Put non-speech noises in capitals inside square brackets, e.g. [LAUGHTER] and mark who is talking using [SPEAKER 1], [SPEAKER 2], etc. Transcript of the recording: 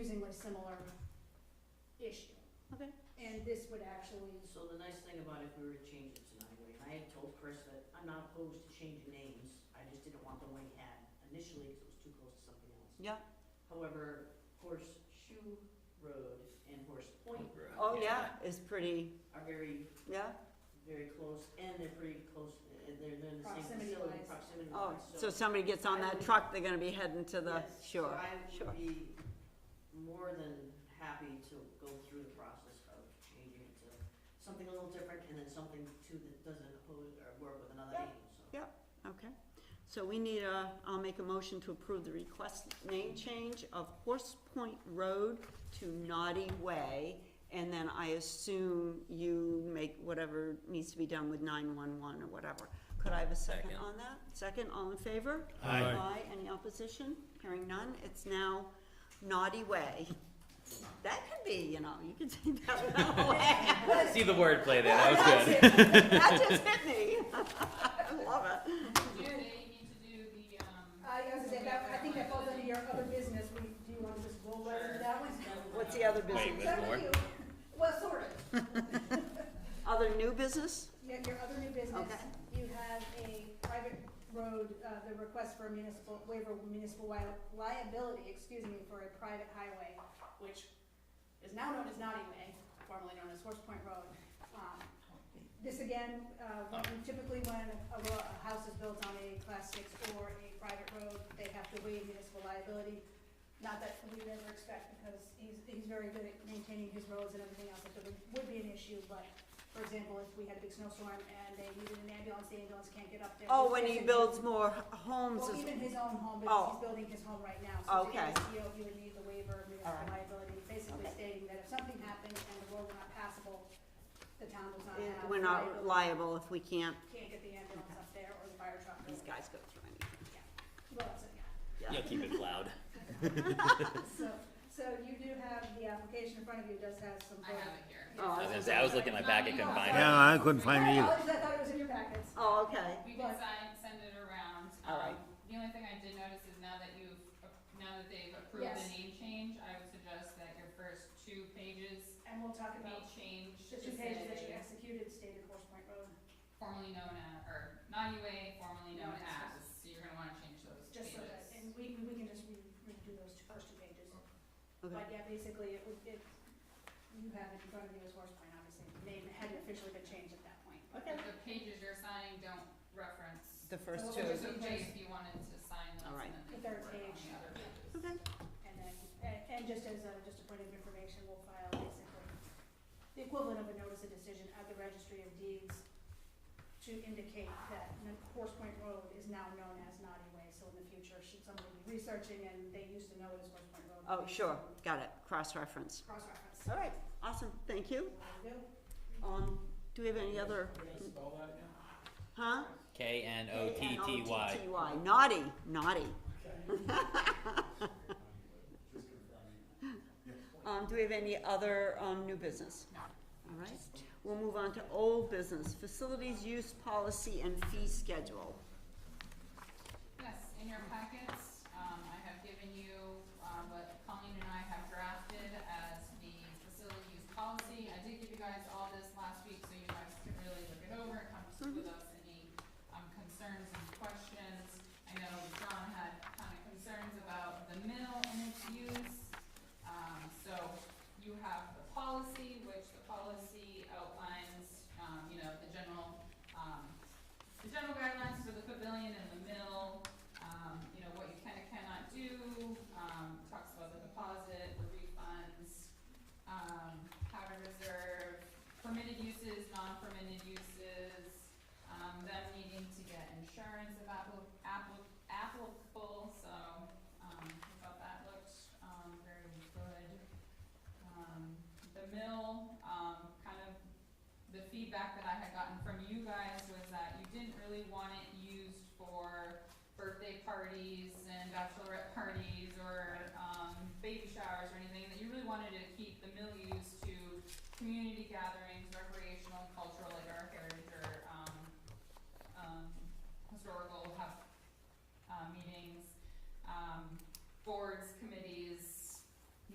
[SPEAKER 1] extremely similar issue.
[SPEAKER 2] Okay.
[SPEAKER 1] And this would actually,
[SPEAKER 3] [LAUGHS]
[SPEAKER 4] So the nice thing about if we were to change it tonight, Wayne, I had told Chris that I'm not opposed to changing names, I just didn't want the one we had initially, because it was too close to something else.
[SPEAKER 2] Yeah.
[SPEAKER 4] However, Horseshoe Road and Horse Point
[SPEAKER 2] Oh, yeah, it's pretty,
[SPEAKER 4] are very,
[SPEAKER 2] yeah,
[SPEAKER 4] very close, and they're pretty close, and they're, they're in the same facility,
[SPEAKER 1] Proximity-wise.
[SPEAKER 4] proximity
[SPEAKER 2] oh,
[SPEAKER 4] wise,
[SPEAKER 2] so somebody gets on that truck, they're gonna be heading to the
[SPEAKER 4] Yes,
[SPEAKER 2] shore,
[SPEAKER 4] So I
[SPEAKER 2] sure.
[SPEAKER 4] would be more than happy to go through the process of changing it to something a little different and then something too that doesn't oppose or work with another
[SPEAKER 2] Yeah.
[SPEAKER 4] name, so.
[SPEAKER 2] Yeah. Okay, so we need a, I'll make a motion to approve the request name change of Horse Point Road to Naughty Way. And then I assume you make whatever needs to be done with nine-one-one or whatever. Could I have a second
[SPEAKER 3] Second.
[SPEAKER 2] on that? Second, all in favor?
[SPEAKER 5] Aye. Aye.
[SPEAKER 2] any opposition? Hearing none, it's now Naughty Way. That could be, you know, you could say that
[SPEAKER 5] [LAUGHS]
[SPEAKER 2] Naughty Way.
[SPEAKER 1] uh,
[SPEAKER 3] See the word play there. That was good.
[SPEAKER 2] That just hit me. [LAUGHS] I love it.
[SPEAKER 6] Do they need to do the, um?
[SPEAKER 1] I, I was gonna say, that, I think that falls under your other business, we, do you wanna just roll right into that one?
[SPEAKER 2] What's the other business?
[SPEAKER 3] Wait, there's
[SPEAKER 1] Some of
[SPEAKER 3] more?
[SPEAKER 1] you- Well, sort of.
[SPEAKER 2] Other new business?
[SPEAKER 1] You have your other new business,
[SPEAKER 2] Okay.
[SPEAKER 1] you have a private road, uh, the request for a municipal, waiver of municipal wi- liability, excuse me, for a private highway, which is now known as Naughty Way, formerly known as Horse Point Road. Um, This again, uh, when- typically when a, ro- a house is built on a class six or a private road, they have to waive municipal liability. Not that we would ever expect, because he's, he's very good at maintaining his roads and everything else, it would, would be an issue, but for example, if we had a big snowstorm and they needed an ambulance, the ambulance can't get up there.
[SPEAKER 2] Oh, when he
[SPEAKER 1] There's a-
[SPEAKER 2] builds more h- homes,
[SPEAKER 1] Well,
[SPEAKER 2] is-
[SPEAKER 1] even his own home,
[SPEAKER 2] Oh.
[SPEAKER 1] because he's building his home right now, so to get
[SPEAKER 2] Okay.
[SPEAKER 1] his CO, you would need the waiver of municipal
[SPEAKER 2] Alright.
[SPEAKER 1] liability, basically
[SPEAKER 2] Okay.
[SPEAKER 1] stating that if something happened and the road were not passable, the town does not have.
[SPEAKER 2] we're
[SPEAKER 1] liability,
[SPEAKER 2] not liable if we can't,
[SPEAKER 1] Can't get the ambulance up there or the fire truck. or-
[SPEAKER 2] these guys go through anything.
[SPEAKER 1] Well, that's it, yeah.
[SPEAKER 3] You'll keep it plowed.
[SPEAKER 1] So, so you do have, the application in front of you does have some.
[SPEAKER 6] I have it here.
[SPEAKER 2] Oh,
[SPEAKER 3] I was gonna say, I was looking at my back, I couldn't find it.
[SPEAKER 5] Yeah, I couldn't find it
[SPEAKER 1] Sorry,
[SPEAKER 5] either.
[SPEAKER 1] apologies, I thought it was in your packets.
[SPEAKER 2] Oh, okay.
[SPEAKER 6] We can sign, send it around.
[SPEAKER 2] All right.
[SPEAKER 6] Um, The only thing I did notice is now that you've, ap- now that they've approved the
[SPEAKER 1] Yes.
[SPEAKER 6] name change, I would suggest that your first two pages
[SPEAKER 1] And we'll talk
[SPEAKER 6] be
[SPEAKER 1] about
[SPEAKER 6] changed
[SPEAKER 1] the
[SPEAKER 6] to
[SPEAKER 1] two pages that you
[SPEAKER 6] say
[SPEAKER 1] executed stated Horse Point Road.
[SPEAKER 6] formerly known as, or not UA, formerly known
[SPEAKER 1] Known as.
[SPEAKER 6] as, so you're gonna wanna change those
[SPEAKER 1] Just so
[SPEAKER 6] pages.
[SPEAKER 1] that, and we, we can just re- redo those two, first two pages.
[SPEAKER 2] Okay.
[SPEAKER 1] But yeah, basically, it would, it, you have it in front of you as Horse Point, obviously, the name had officially been changed at that point.
[SPEAKER 2] Okay.
[SPEAKER 6] But the pages you're signing don't reference,
[SPEAKER 2] The
[SPEAKER 1] So
[SPEAKER 2] first two.
[SPEAKER 1] we'll
[SPEAKER 6] it's
[SPEAKER 1] just-
[SPEAKER 6] okay if you wanted to sign those
[SPEAKER 2] All right.
[SPEAKER 6] and
[SPEAKER 1] The
[SPEAKER 6] then they
[SPEAKER 1] third
[SPEAKER 6] can work on
[SPEAKER 1] page.
[SPEAKER 6] the other pages.
[SPEAKER 2] Okay.
[SPEAKER 1] And then, and, and just as a, just a point of information, we'll file basically the equivalent of a notice of decision at the registry of deeds to indicate that N- Horse Point Road is now known as Naughty Way, so in the future, should somebody be researching and they used to know it as Horse Point Road.
[SPEAKER 2] Oh,
[SPEAKER 1] they
[SPEAKER 2] sure,
[SPEAKER 1] can
[SPEAKER 2] got it, cross-reference.
[SPEAKER 1] Cross-reference.
[SPEAKER 2] All right, awesome, thank you.
[SPEAKER 1] There we go.
[SPEAKER 2] Um, do we have any other? Huh?
[SPEAKER 3] K N O T T Y.
[SPEAKER 2] T-T-Y, naughty, naughty. Um, do we have any other, um, new business? All right, we'll move on to old business, facilities use policy and fee schedule.
[SPEAKER 6] Yes, in your packets, um, I have given you, um, what Colleen and I have drafted as the facility use policy. I did give you guys all this last week, so you guys can really look it over, and come to with us any, um, concerns and questions. I know John had kind of concerns about the mill and its use. Um, so you have the policy, which the policy outlines, um, you know, the general, um, the general guidelines for the pavilion and the mill, um, you know, what you can and cannot do, um, talks about the deposit, the refunds, um, how to reserve permitted uses, non-permitted uses, um, them needing to get insurance if appli- appli- applicable, so, um, I thought that looked, um, very good. Um, the mill, um, kind of the feedback that I had gotten from you guys was that you didn't really want it used for birthday parties and bachelorette parties or, um, baby showers or anything, that you really wanted to keep the mill used to community gatherings um, uh, um,